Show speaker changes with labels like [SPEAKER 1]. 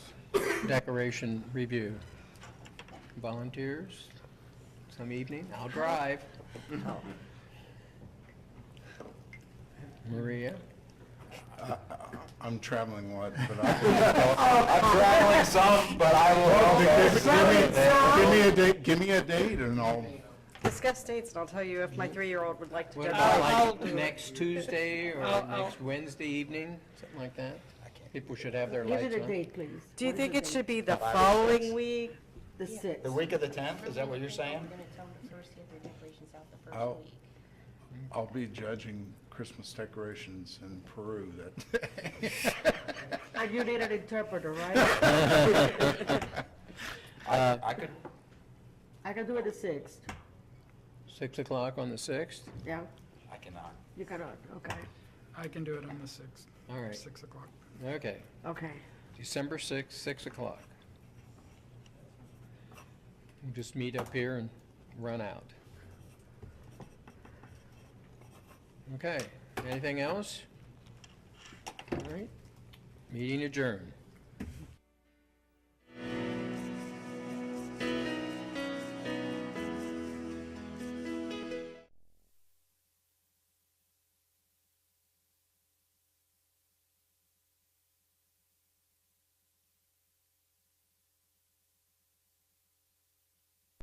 [SPEAKER 1] decoration review. Volunteers? Some evening? I'll drive. Maria?
[SPEAKER 2] I'm traveling what, but I
[SPEAKER 3] I'm traveling some, but I will.
[SPEAKER 2] Oh, Give me a date, give me a date and I'll,
[SPEAKER 4] Discuss dates, and I'll tell you if my three-year-old would like to go.
[SPEAKER 1] What
[SPEAKER 4] down.
[SPEAKER 1] about
[SPEAKER 5] I'll
[SPEAKER 1] like
[SPEAKER 5] do it.
[SPEAKER 1] next Tuesday or
[SPEAKER 5] I'll- I'll-
[SPEAKER 1] next Wednesday evening, something like that? People should have their
[SPEAKER 5] Give
[SPEAKER 1] lights
[SPEAKER 5] it a
[SPEAKER 1] on.
[SPEAKER 5] date, please.
[SPEAKER 4] Do you
[SPEAKER 5] What is
[SPEAKER 4] think
[SPEAKER 5] the
[SPEAKER 4] it
[SPEAKER 5] date?
[SPEAKER 4] should be the
[SPEAKER 3] Five or
[SPEAKER 4] following
[SPEAKER 3] six.
[SPEAKER 4] week?
[SPEAKER 5] The sixth.
[SPEAKER 3] The week of the 10th, is that what you're saying?
[SPEAKER 6] We're gonna tell them first, get their decorations out the
[SPEAKER 2] I'll-
[SPEAKER 6] first week.
[SPEAKER 2] I'll be judging Christmas decorations in Peru that.
[SPEAKER 5] And you need an interpreter, right?
[SPEAKER 3] I I could,
[SPEAKER 5] I can do it the sixth,
[SPEAKER 1] Six o'clock on the sixth?
[SPEAKER 5] yeah?
[SPEAKER 3] I cannot.
[SPEAKER 5] You cannot, okay,
[SPEAKER 7] I can do it on the 6th,
[SPEAKER 1] All right,
[SPEAKER 7] 6 o'clock.
[SPEAKER 1] okay.
[SPEAKER 5] okay.
[SPEAKER 1] December sixth, six o'clock. We'll Just meet up here and run out. Okay, anything else? All right, meeting adjourned.